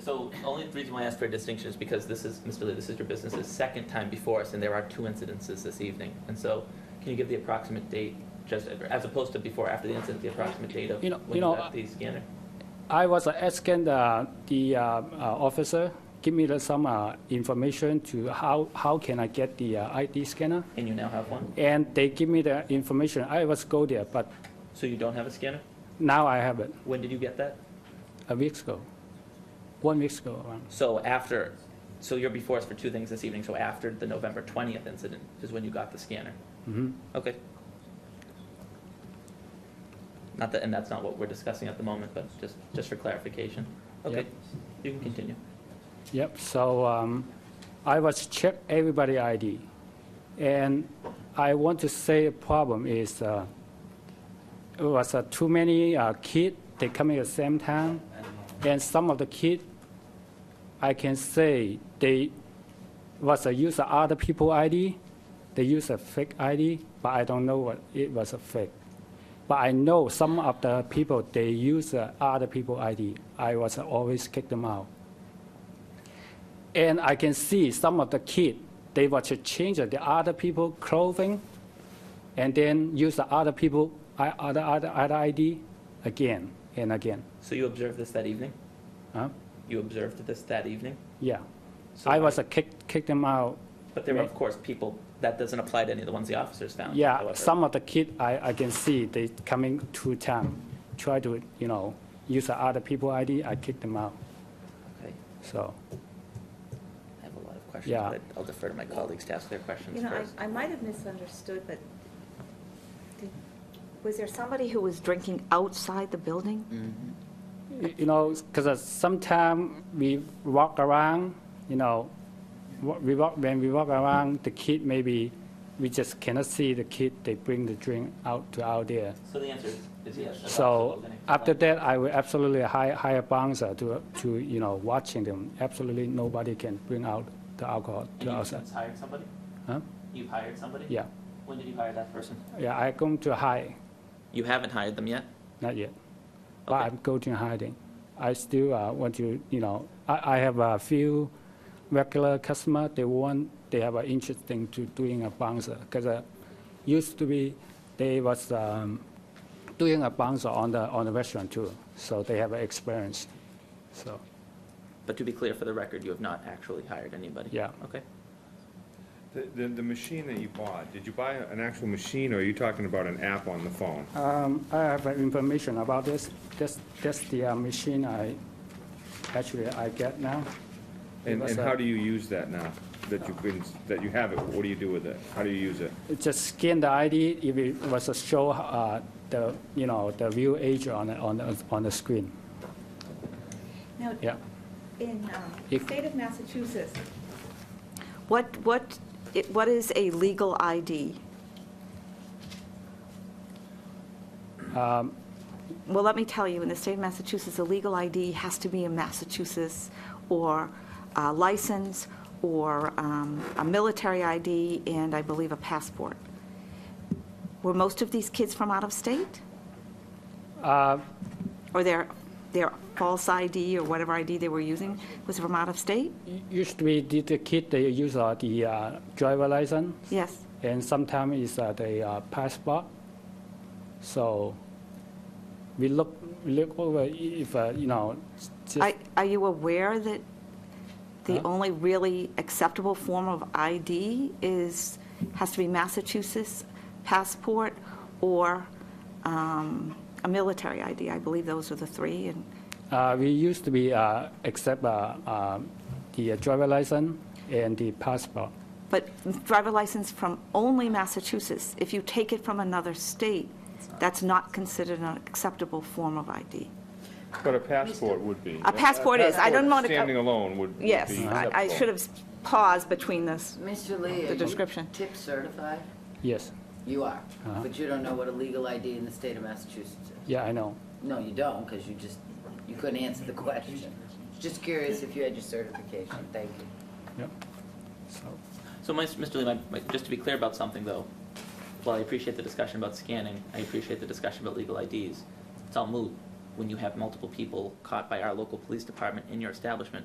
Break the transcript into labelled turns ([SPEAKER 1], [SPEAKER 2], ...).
[SPEAKER 1] So only reason why I asked for a distinction is because this is, Mr. Lee, this is your business's second time before us, and there are two incidences this evening. And so, can you give the approximate date, just as opposed to before, after the incident, the approximate date of
[SPEAKER 2] You know-
[SPEAKER 1] when
[SPEAKER 2] you
[SPEAKER 1] you
[SPEAKER 2] know,
[SPEAKER 1] got the scanner?
[SPEAKER 2] I was asking uh, the uh, uh, officer, give me the- some uh, information to how, how can I get the uh, ID scanner?
[SPEAKER 1] And you now have one?
[SPEAKER 2] And they give me the information. I was go there, but
[SPEAKER 1] So you don't have a scanner?
[SPEAKER 2] now I have it,
[SPEAKER 1] When did you get that?
[SPEAKER 2] a week ago, one week ago. around.
[SPEAKER 1] So after, so you're before us for two things this evening, so after the November 20th incident is when you got the scanner?
[SPEAKER 2] Mhm.
[SPEAKER 1] Okay. Not that, and that's not what we're discussing at the moment, but just, just for clarification. Okay,
[SPEAKER 2] Yep.
[SPEAKER 1] you can continue.
[SPEAKER 2] Yep, so um, I was check everybody ID. And I want to say a problem is, uh, it was uh, too many uh, kid, they come at the same time. And some of the kid, I can say they was a user other people ID, they use a fake ID, but I don't know what it was a fake. But I know some of the people, they use uh, other people ID. I was always kick them out. And I can see some of the kid, they were to change the other people clothing and then use the other people, I- other, other, other ID again and again.
[SPEAKER 1] So you observed this that evening?
[SPEAKER 2] Huh?
[SPEAKER 1] You observed this that evening?
[SPEAKER 2] Yeah.
[SPEAKER 1] So
[SPEAKER 2] I was a kick, kick them out.
[SPEAKER 1] But there were, of course, people, that doesn't apply to any of the ones the officers found.
[SPEAKER 2] Yeah,
[SPEAKER 1] however.
[SPEAKER 2] some of the kid, I, I can see they coming two time, try to, you know, use the other people ID, I kick them out,
[SPEAKER 1] Okay.
[SPEAKER 2] so.
[SPEAKER 1] I have a lot of questions,
[SPEAKER 2] Yeah.
[SPEAKER 1] but I'll defer to my colleagues to ask their questions
[SPEAKER 3] You know,
[SPEAKER 1] first.
[SPEAKER 3] I, I might have misunderstood, but did- was there somebody who was drinking outside the building?
[SPEAKER 2] Y- you know, because sometimes we walk around, you know, wa- we walk, when we walk around, the kid maybe, we just cannot see the kid, they bring the drink out to out there.
[SPEAKER 1] So the answer is yes. that's
[SPEAKER 2] So
[SPEAKER 1] absolutely.
[SPEAKER 2] after that, I will absolutely hire, hire bouncer uh, to, to, you know, watching them. Absolutely nobody can bring out the alcohol
[SPEAKER 1] And
[SPEAKER 2] to
[SPEAKER 1] you
[SPEAKER 2] outside.
[SPEAKER 1] since hired somebody?
[SPEAKER 2] Huh?
[SPEAKER 1] You've hired somebody?
[SPEAKER 2] Yeah,
[SPEAKER 1] When did you hire that person?
[SPEAKER 2] yeah, I come to hide,
[SPEAKER 1] You haven't hired them yet?
[SPEAKER 2] not yet. But
[SPEAKER 1] Okay.
[SPEAKER 2] I'm going to hiding. I still uh, want to, you know, I, I have a few regular customer. They want, they have an interesting to doing a bouncer because uh, used to be they was um, doing a bouncer on the on the restaurant too. So they have experience. So
[SPEAKER 1] But to be clear, for the record, you have not actually hired anybody?
[SPEAKER 2] Yeah.
[SPEAKER 1] Okay.
[SPEAKER 4] The, the, the machine that you bought, did you buy an actual machine, or are you talking about an app on the phone?
[SPEAKER 2] um, I have uh, information about this. This that's the uh, machine I actually I get now. It
[SPEAKER 4] And,
[SPEAKER 2] was,
[SPEAKER 4] and
[SPEAKER 2] uh,
[SPEAKER 4] how do you use that now, that you've been, that you have it, what do you do with it? How do you use it?
[SPEAKER 2] It just scan the ID, if it was a show, uh, the, you know, the view age on, the- on, the- on the screen,
[SPEAKER 3] Now,
[SPEAKER 2] yeah.
[SPEAKER 3] in um, the
[SPEAKER 2] If-
[SPEAKER 3] state of Massachusetts, what, what, it- what is a legal ID? Well, let me tell you, in the state of Massachusetts, a legal ID has to be in Massachusetts, or a license, or um, a military ID, and I believe a passport. Were most of these kids from out of state?
[SPEAKER 2] Uh,
[SPEAKER 3] Or their, their false ID, or whatever ID they were using, was from out of state?
[SPEAKER 2] u- Usually, the- the kid, they use uh, the uh, driver license,
[SPEAKER 3] Yes.
[SPEAKER 2] and sometimes it's uh, the uh, passport. So we look, we look over i- if, uh, you know, s-
[SPEAKER 3] Are
[SPEAKER 2] just,
[SPEAKER 3] are you aware that the
[SPEAKER 2] Huh?
[SPEAKER 3] only really acceptable form of ID is, has to be Massachusetts passport or um, a military ID? I believe those are the three, and
[SPEAKER 2] uh, we used to be, uh, accept uh, um, the driver license and the passport.
[SPEAKER 3] But driver license from only Massachusetts, if you take it from another state, that's not considered an acceptable form of ID.
[SPEAKER 4] But a passport would be.
[SPEAKER 3] A passport is. I don't
[SPEAKER 4] passport
[SPEAKER 3] wanna-
[SPEAKER 4] Standing alone would would be
[SPEAKER 3] Yes, I I
[SPEAKER 4] acceptable.
[SPEAKER 3] should have paused between this.
[SPEAKER 5] Mr. Lee,
[SPEAKER 3] The
[SPEAKER 5] are you
[SPEAKER 3] description.
[SPEAKER 5] tip certified?
[SPEAKER 2] Yes,
[SPEAKER 5] You are,
[SPEAKER 2] Uh-huh.
[SPEAKER 5] but you don't know what a legal ID in the state of Massachusetts is.
[SPEAKER 2] yeah, I know.
[SPEAKER 5] No, you don't, because you just, you couldn't answer the question. Just curious if you had your certification, thank you.
[SPEAKER 2] Yep. So.
[SPEAKER 1] So, my- Mr. Lee, my- my- just to be clear about something, though, while I appreciate the discussion about scanning, I appreciate the discussion about legal IDs, it's all moot when you have multiple people caught by our local police department in your establishment,